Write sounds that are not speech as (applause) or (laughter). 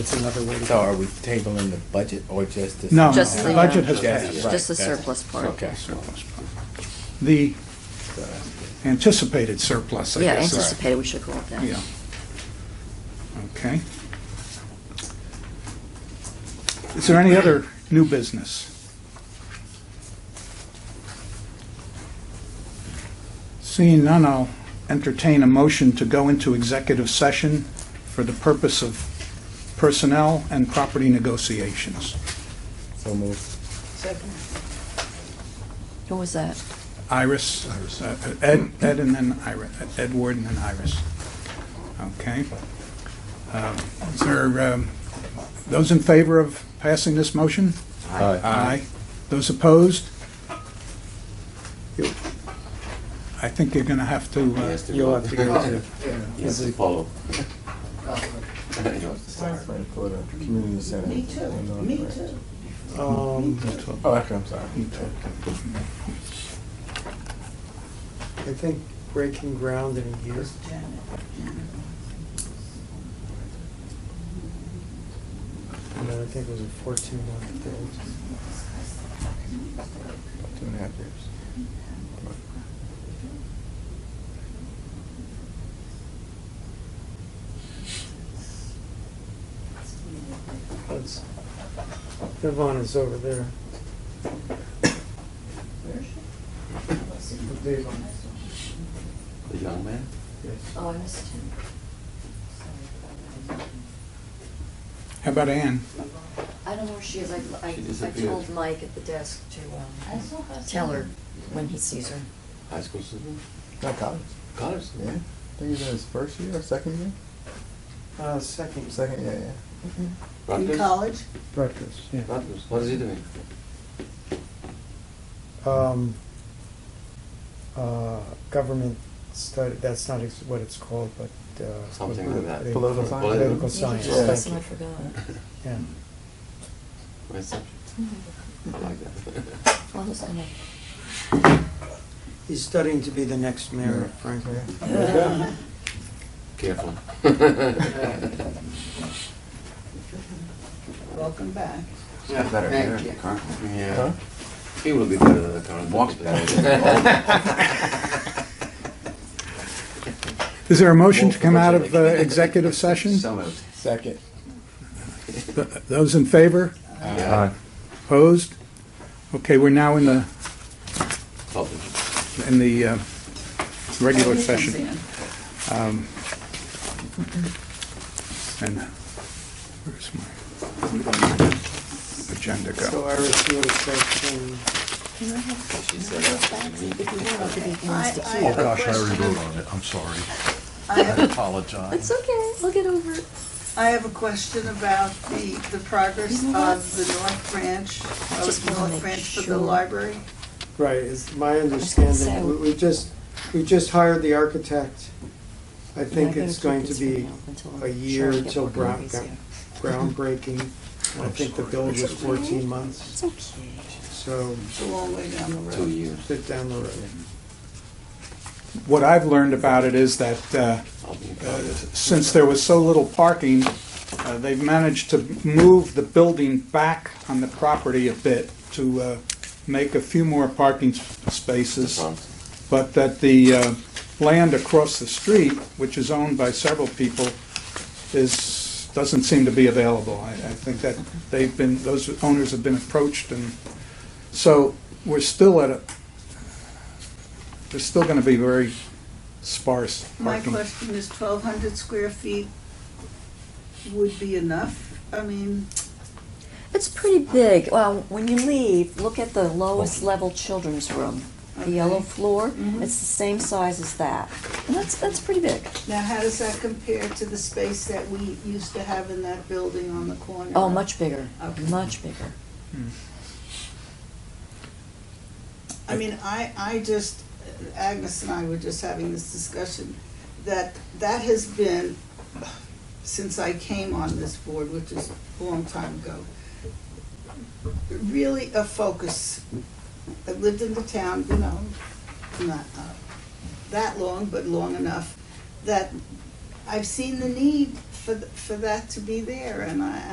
It's another way to So go. are we tabling the budget or just the? No, Just the, the uh, budget has passed. Just- right, Just the that's- surplus part. Okay. The So that's good. anticipated surplus, I Yeah, guess. anticipated, we should call it that. Yeah. Okay. Is there any other new business? Seeing none, I'll entertain a motion to go into executive session for the purpose of personnel and property negotiations. So moved. Who was that? Iris, uh, Ed, Ed and then Iris, uh, Edward and then Iris. Okay. Um, Is there, um, those in favor of passing this motion? Aye. Those opposed? You- I think you're going to have to, uh, You'll have to go to, Yes, follow. Community center. Me too, me too. um, Oh, okay, I'm sorry. I think breaking ground in a year. Janet. And then I think it was a fourteen month thing. Two and a half years. That's, Yvonne is over there. With Dave on it. The young man? Oh, I missed him. how about Ann? I don't know where she is, I, I- She I disappeared. told Mike at the desk to, um, tell her when he sees her. High school student? Not college. College Yeah. I student? think it's in his first year or second year? Uh, second. Second, yeah, yeah. Mm-hmm. Rutgers? In college? Breakfast, yeah. Rutgers. What is he doing? Um, uh, government study, that's not ex- what it's called, but, uh. Something like that. they- Political science. Political science, Yeah. thank Lesson I you, forgot. yeah. (laughs) My subject. Mm-hmm. I like that. (laughs) Well, who's gonna, He's studying to be the next mayor of Franklin. Careful. (laughs) Welcome back. Better, Thank you. Yeah. He will be better than the current. Walks Is there a (laughs) motion to come out of uh, executive session? (laughs) Second. Th- Those in favor? Uh-huh. Yeah. Opposed? Okay, we're now in the, Public. in the uh, regular session. Comes in. Um, And where's my agenda So go? Iris, you would have section can I have, can I have that? If you don't want to be I- against Oh, I it. have a Gosh, I already question. voted on it, I'm sorry. I I have- apologize. It's okay, I'll get over it. I have a question about the, the progress You of know what? the North Branch, I just of wanna North make Branch for sure. the library. Right, it's my say- understanding, we, we just, we just hired the architect. I And I think better it's keep going to this be for now until I'm a sure year I get till more Brown copies got- here. groundbreaking. I I'm think the sorry. build was fourteen It's months, okay. so It's a long way down the road. Two years. sit down the road. What I've learned about it is that uh, I'll be in uh, college. since there was so little parking, uh, they've managed to move the building back on the property a bit to uh, make a few more parking s- spaces. Thompson. but that the uh, land across the street, which is owned by several people, is, doesn't seem to be available. I, I think that they've been, those owners have been approached, and so we're still at a, there's still going to be very sparse My parking. question is twelve hundred square feet would be enough? I mean, It's pretty big. Well, when you leave, look at the lowest level children's room. The yellow Okay. floor, Mhm. it's the same size as that. And that's, that's pretty big. now how does that compare to the space that we used to have in that building on the corner? Oh, much bigger, Okay. much bigger. I mean, I, I just, Agnes and I were just having this discussion, that that has been, since I came on this board, which is a long time ago, really a focus. I've lived in the town, you know, not uh, that long, but long enough, that I've seen the need for for, th- for that to be there, and I,